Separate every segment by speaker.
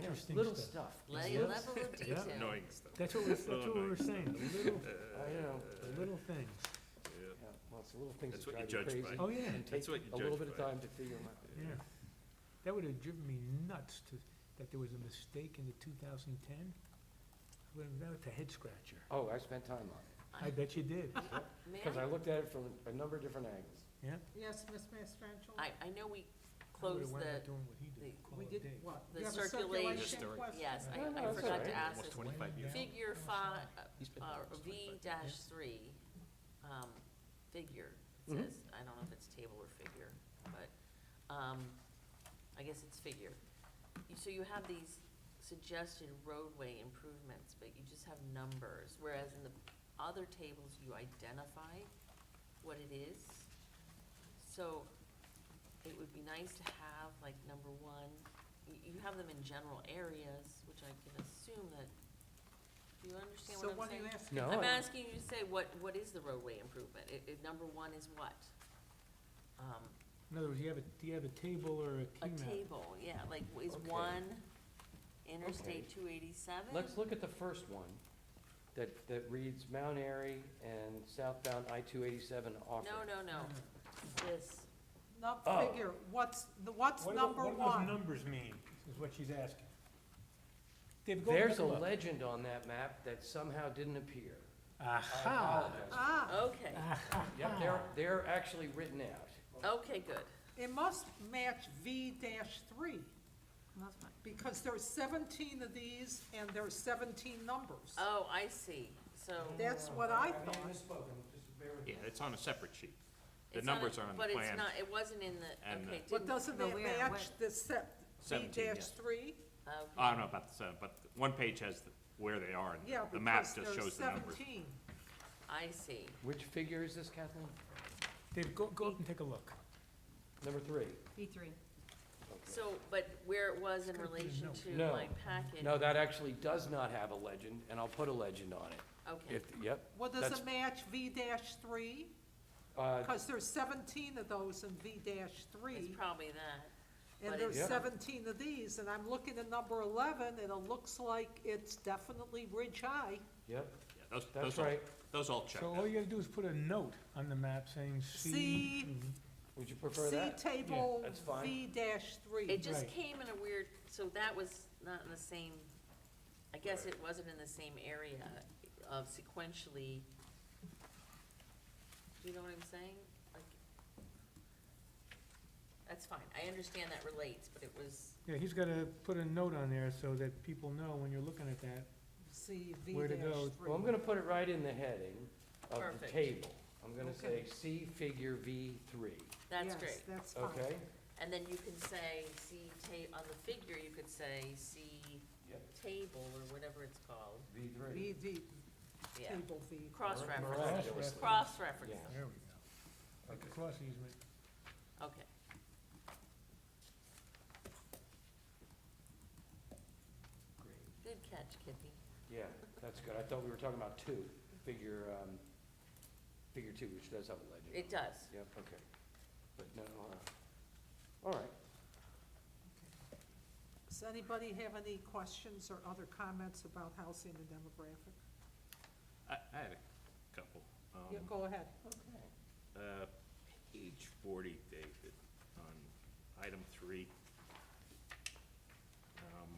Speaker 1: interesting
Speaker 2: Little
Speaker 1: stuff.
Speaker 2: stuff.
Speaker 3: Le-
Speaker 1: Yes.
Speaker 3: Level of
Speaker 1: Yeah.
Speaker 3: detail.
Speaker 4: Annoying stuff.
Speaker 1: That's what we, that's what we were saying, the little,
Speaker 2: I know.
Speaker 1: the little things.
Speaker 4: Yeah.
Speaker 2: Yeah, well, it's the little things
Speaker 4: That's
Speaker 2: that
Speaker 4: what you
Speaker 2: drive you
Speaker 4: judge
Speaker 2: crazy.
Speaker 4: by.
Speaker 1: Oh, yeah,
Speaker 2: And
Speaker 4: That's
Speaker 2: take
Speaker 4: what you
Speaker 2: a little
Speaker 4: judge
Speaker 2: bit of
Speaker 4: by.
Speaker 2: time to figure them out.
Speaker 1: yeah. That would have driven me nuts to, that there was a mistake in the two thousand ten. That was a head scratcher.
Speaker 2: Oh, I spent time on it,
Speaker 1: I bet you did,
Speaker 3: May
Speaker 2: because
Speaker 3: I-
Speaker 2: I looked at it from a number of different angles.
Speaker 1: yeah.
Speaker 5: Yes, Ms. Mastrangelo?
Speaker 3: I, I know we
Speaker 1: I would've
Speaker 3: closed
Speaker 1: wound up
Speaker 3: the,
Speaker 1: doing what he did,
Speaker 3: the-
Speaker 1: call
Speaker 5: We
Speaker 1: it
Speaker 5: did
Speaker 1: a day.
Speaker 5: what?
Speaker 3: The
Speaker 5: You have a
Speaker 3: circulation
Speaker 5: circulation
Speaker 4: Historic.
Speaker 5: question?
Speaker 3: yes,
Speaker 2: No,
Speaker 3: I,
Speaker 2: no,
Speaker 3: I
Speaker 2: that's all
Speaker 3: forgot
Speaker 2: right.
Speaker 3: to ask
Speaker 4: Almost
Speaker 3: this.
Speaker 4: 25 years.
Speaker 3: Figure five, uh, V dash three, um, figure, it
Speaker 2: Mhm.
Speaker 3: says, I don't know if it's table or figure, but, um, I guess it's figure. You- So you have these suggested roadway improvements, but you just have numbers, whereas in the other tables, you identify what it is. So it would be nice to have, like, number one, you, you have them in general areas, which I can assume that, do you understand
Speaker 5: So
Speaker 3: what I'm saying?
Speaker 5: what are you asking?
Speaker 2: No,
Speaker 3: I'm
Speaker 2: I-
Speaker 3: asking you to say, what, what is the roadway improvement? It, it, number one is what? Um,
Speaker 1: In other words, you have a, do you have a table or a
Speaker 3: a
Speaker 1: key map?
Speaker 3: table, yeah, like, w- is
Speaker 2: Okay.
Speaker 3: one
Speaker 2: Okay.
Speaker 3: Interstate two eighty-seven?
Speaker 2: Let's look at the first one, that, that reads Mount Airy and southbound I-287 off.
Speaker 3: No, no, no, this,
Speaker 5: Not
Speaker 2: Oh.
Speaker 5: figure, what's, the what's
Speaker 1: What do-
Speaker 5: number
Speaker 1: What do those
Speaker 5: one?
Speaker 1: numbers mean, is what she's asking. David, go and
Speaker 2: There's
Speaker 1: look
Speaker 2: a
Speaker 1: 'em up.
Speaker 2: legend on that map that somehow didn't appear. I
Speaker 1: Aha.
Speaker 2: apologize.
Speaker 5: Ah,
Speaker 3: okay,
Speaker 2: Yep, they're, they're actually written out.
Speaker 3: okay, good,
Speaker 5: it must match V dash three. Because there's seventeen of these and there's seventeen numbers.
Speaker 3: oh, I see, so.
Speaker 5: That's what I thought.
Speaker 4: Yeah, it's on a separate sheet. The
Speaker 3: it's not a-
Speaker 4: numbers are on the
Speaker 3: But it's
Speaker 4: plan.
Speaker 3: not, it wasn't in the,
Speaker 4: And,
Speaker 3: okay,
Speaker 4: uh,
Speaker 5: But
Speaker 3: didn't,
Speaker 5: doesn't
Speaker 6: But
Speaker 5: that
Speaker 6: where?
Speaker 5: match the set, V
Speaker 4: 17,
Speaker 5: dash
Speaker 4: yes.
Speaker 5: three?
Speaker 3: okay.
Speaker 4: I don't know about the seven, but one page has the- where they are, and
Speaker 5: Yeah,
Speaker 4: the map
Speaker 5: because
Speaker 4: just
Speaker 5: there's
Speaker 4: shows the numbers.
Speaker 5: seventeen.
Speaker 3: I see.
Speaker 2: Which figure is this, Kathleen?
Speaker 1: David, go, go up and take a look.
Speaker 2: Number three?
Speaker 6: B three.
Speaker 3: So, but where it was in
Speaker 1: gonna be a
Speaker 3: relation
Speaker 1: note.
Speaker 3: to
Speaker 2: No.
Speaker 3: my packet?
Speaker 2: No, that actually does not have a legend, and I'll put a legend on it.
Speaker 3: Okay,
Speaker 2: If, yep.
Speaker 5: Well, does
Speaker 2: that's-
Speaker 5: it match V dash three?
Speaker 2: uh,
Speaker 5: Because there's seventeen of those in V dash three.
Speaker 3: it's probably that.
Speaker 5: And
Speaker 3: But
Speaker 5: there's
Speaker 2: Yeah.
Speaker 5: seventeen of these, and I'm looking at number eleven, and it looks like it's definitely Ridge High.
Speaker 2: Yep,
Speaker 4: Yeah, those,
Speaker 2: that's
Speaker 4: those all,
Speaker 2: right.
Speaker 4: those all check
Speaker 1: So all
Speaker 4: out.
Speaker 1: you gotta do is put a note on the map saying C.
Speaker 5: See?
Speaker 1: Mhm.
Speaker 2: Would you prefer
Speaker 5: See
Speaker 2: that?
Speaker 5: table
Speaker 2: that's fine.
Speaker 5: V dash three.
Speaker 3: It just
Speaker 1: Right.
Speaker 3: came in a weird, so that was not in the same, I guess it wasn't in the same area of sequentially. Do you know what I'm saying? Like, That's fine, I understand that relates, but it was,
Speaker 1: Yeah, he's gotta put a note on there so that people know when you're looking at that.
Speaker 5: See V
Speaker 1: Where
Speaker 5: dash
Speaker 1: to go?
Speaker 5: three.
Speaker 2: Well, I'm gonna put it right in the heading of the
Speaker 3: Perfect.
Speaker 2: table. I'm gonna say
Speaker 5: Okay.
Speaker 2: C figure V three,
Speaker 3: that's
Speaker 5: Yes,
Speaker 3: great.
Speaker 5: that's fine.
Speaker 2: okay?
Speaker 3: And then you can say, see ta, on the figure, you could say, see
Speaker 2: Yep.
Speaker 3: table or whatever it's called,
Speaker 2: V three.
Speaker 5: V, V,
Speaker 3: yeah.
Speaker 5: table V.
Speaker 3: Cross-reference,
Speaker 2: Miraculously.
Speaker 3: cross-reference,
Speaker 2: Yeah.
Speaker 1: There we go. Like the cross easement.
Speaker 3: okay. Good catch, Kippy.
Speaker 2: Yeah, that's good. I thought we were talking about two, figure, um, figure two, which does have a legend.
Speaker 3: It does.
Speaker 2: Yep, okay. But no, uh, all right.
Speaker 5: Does anybody have any questions or other comments about housing and demographic?
Speaker 4: I, I had a couple. Um,
Speaker 5: Yeah, go ahead.
Speaker 4: Uh, Page forty, David, on item three. Um,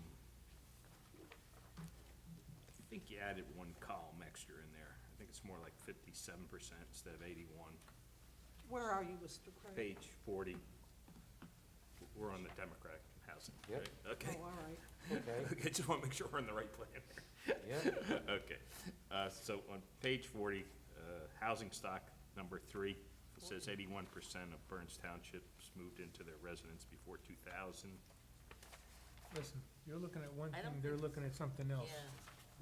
Speaker 4: I think you added one column extra in there. I think it's more like fifty-seven percent instead of eighty-one.
Speaker 5: Where are you, Mr. Craig?
Speaker 4: Page forty. We're on the democratic housing,
Speaker 2: Yep.
Speaker 4: right? Okay.
Speaker 5: Oh, all right.
Speaker 2: Okay,
Speaker 4: Okay, just want to make sure we're on the right plan here.
Speaker 2: yeah.
Speaker 4: Okay, uh, so on page forty, uh, housing stock number three, it says eighty-one percent of Burns Townships moved into their residence before two thousand.
Speaker 1: Listen, you're looking at one
Speaker 3: I
Speaker 1: thing,
Speaker 3: don't
Speaker 1: they're
Speaker 3: think-
Speaker 1: looking at something
Speaker 3: Yeah,
Speaker 1: else.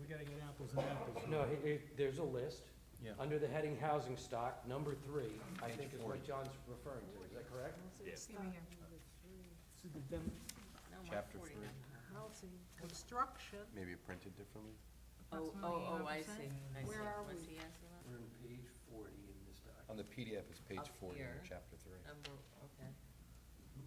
Speaker 1: We gotta get apples and apples. here.
Speaker 2: No, he- he- there's a list.
Speaker 1: Yeah.
Speaker 2: Under the heading housing stock, number three, I
Speaker 4: Page
Speaker 2: think is what
Speaker 4: 40.
Speaker 2: John's referring to, is that correct?
Speaker 4: Yes.
Speaker 6: Over here.
Speaker 1: This is the dem-
Speaker 3: no, one
Speaker 7: Chapter
Speaker 3: forty,
Speaker 7: three.
Speaker 3: no.
Speaker 5: Housing, construction,
Speaker 7: Maybe it printed differently?
Speaker 3: Oh,
Speaker 6: That's
Speaker 3: oh, oh, I
Speaker 6: 81%.
Speaker 3: see, I see.
Speaker 5: Where are
Speaker 3: Was
Speaker 5: we?
Speaker 3: he asking
Speaker 2: We're in page forty in this document.
Speaker 7: On the PDF, it's page
Speaker 3: Up
Speaker 7: forty,
Speaker 3: here.
Speaker 7: chapter three.
Speaker 3: that? Number,